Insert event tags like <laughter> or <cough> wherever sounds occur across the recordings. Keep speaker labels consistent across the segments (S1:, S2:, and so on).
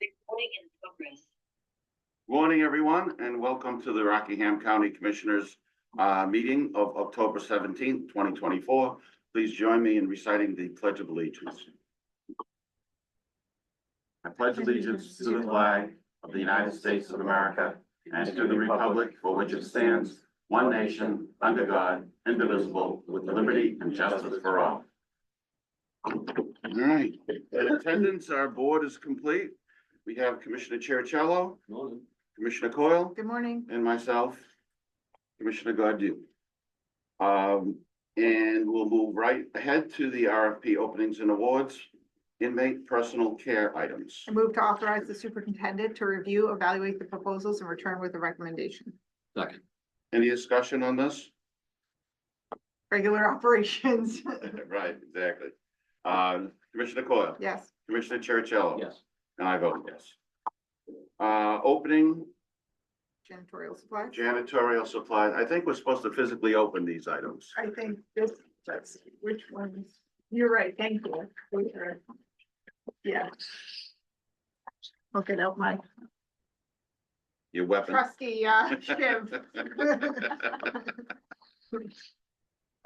S1: recording in progress.
S2: Morning, everyone, and welcome to the Rockingham County Commissioners uh, meeting of October seventeenth, twenty twenty-four. Please join me in reciting the Pledge of Allegiance. I pledge allegiance to the flag of the United States of America and to the republic for which it stands, one nation, under God, indivisible, with liberty and justice for all. All right, in attendance, our board is complete. We have Commissioner Cherichello, Commissioner Coyle.
S3: Good morning.
S2: and myself, Commissioner Godu. Um, and we'll move right ahead to the RFP openings and awards, inmate personal care items.
S3: I move to authorize the superintendent to review, evaluate the proposals and return with a recommendation.
S4: Second,
S2: Any discussion on this?
S3: Regular <laughs> operations,
S2: <laughs> Right, exactly. Um, Commissioner Coyle,
S3: yes.
S2: Commissioner Cherichello.
S4: yes,
S2: And I vote yes. Uh, opening
S3: Janitorial supplies.
S2: janitorial supplies. I think we're supposed to physically open these items.
S3: I think this, that's, which ones? You're right, thank you. Those are- Yeah. Look it up, Mike.
S2: Your <laughs> weapon.
S3: Trusty, <laughs> uh, Shiv.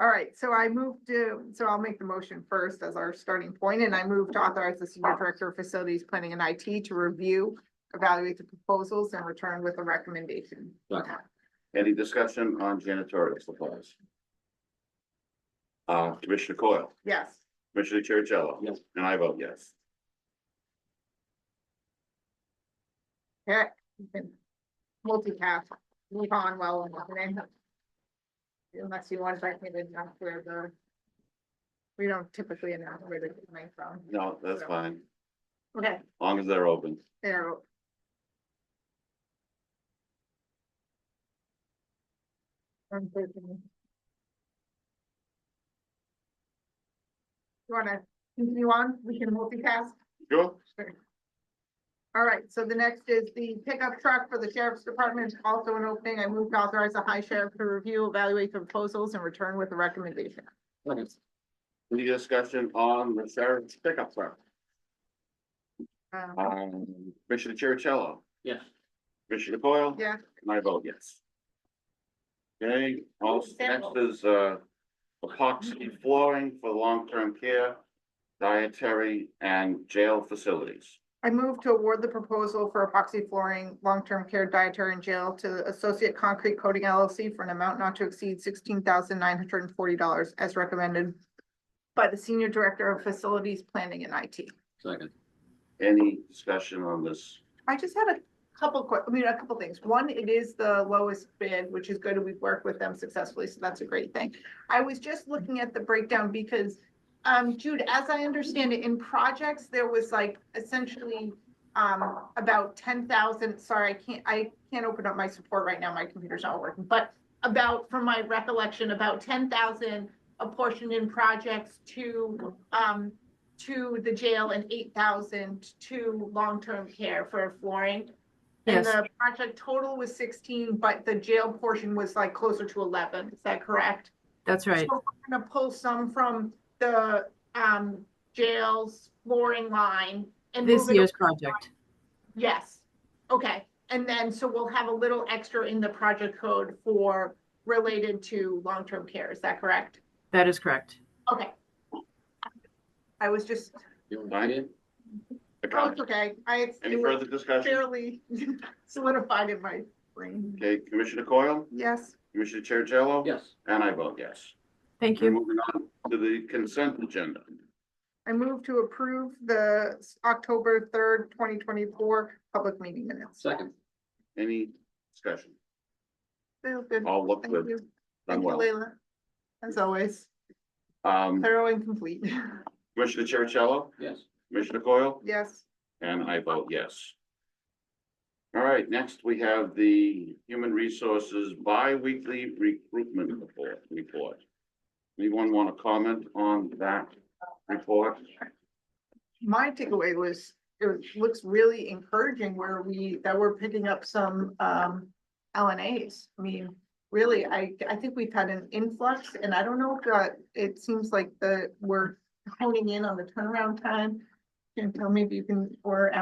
S3: All right, so I moved to, so I'll make the motion first as our starting point, and I move to authorize the senior director of facilities planning and IT to review, evaluate the proposals and return with a recommendation.
S4: Second.
S2: Any discussion on janitorial supplies? Uh, Commissioner Coyle,
S3: Yes,
S2: Commissioner Cherichello.
S4: Yes.
S2: And I vote yes.
S3: yeah, you can multitask, move on well enough. Unless you want to, I can announce where the, we don't typically announce where they're coming from.
S2: No, that's fine, as
S3: Okay,
S2: long as they're open.
S3: there. I'm thinking. You wanna continue on? We can multitask?
S2: Sure.
S3: All right, so the next is the pickup truck for the sheriff's department, also an opening. I move to authorize the high sheriff to review, evaluate the proposals and return with a recommendation.
S4: second,
S2: Any discussion on the sheriff's pickup truck?
S3: Um,
S2: Um, Commissioner Cherichello,
S4: yes,
S2: Commissioner Coyle.
S3: Yeah.
S2: And I vote yes. Okay, also, next
S1: Sample.
S2: is, uh, epoxy flooring for long-term care, dietary and jail facilities.
S3: I move to award the proposal for epoxy flooring, long-term care dietary and jail to Associate Concrete Coating LLC for an amount not to exceed sixteen thousand nine hundred and forty dollars as recommended by the Senior Director of Facilities Planning and IT.
S4: second,
S2: Any discussion on this?
S3: I just had a couple que, I mean, a couple things. One, it is the lowest bid, which is good, and we've worked with them successfully, so that's a great thing. I was just looking at the breakdown because, um, Jude, as I understand it, in projects, there was like essentially um, about ten thousand, sorry, I can't, I can't open up my support right now, my computer's not working, but about, from my recollection, about ten thousand apportioned in projects to, um, to the jail and eight thousand to long-term care for flooring. And
S1: Yes.
S3: the project total was sixteen, but the jail portion was like closer to eleven, is that correct?
S1: That's
S3: So we're gonna pull some from the, um, jail's flooring line and
S1: This
S3: move it
S1: year's project.
S3: Yes, okay, and then, so we'll have a little extra in the project code for related to long-term care, is that correct?
S1: That is correct.
S3: Okay. I was just,
S4: you want it?
S3: oh, it's okay, I.
S2: Any further discussion?
S3: Fairly <laughs> solidified in my brain,
S2: Okay, Commissioner Coyle,
S3: yes,
S2: Commissioner Chercello?
S4: yes,
S2: And I vote yes.
S1: Thank
S2: We're
S1: you.
S2: moving on to the consent agenda.
S3: I move to approve the s- October third, twenty twenty-four public meeting minutes.
S4: second,
S2: Any discussion?
S3: Feels good.
S2: All look
S3: Thank
S2: good,
S3: you,
S2: done
S3: thank you,
S2: well.
S3: Leila, as always,
S2: Um,
S3: thorough and complete, <laughs>
S2: Commissioner Chercello,
S4: yes,
S2: Commissioner Coyle,
S3: yes.
S2: and I vote yes. All right, next we have the Human Resources Bi-Weekly Recruitment Report- Report. Anyone want to comment on that report?
S3: my takeaway was, it was- looks really encouraging where we, that we're picking up some um LNAs. I mean, really, I I think we've had an influx and I don't know if uh, it seems like the, we're honing in on the turnaround time. And tell me if you can, or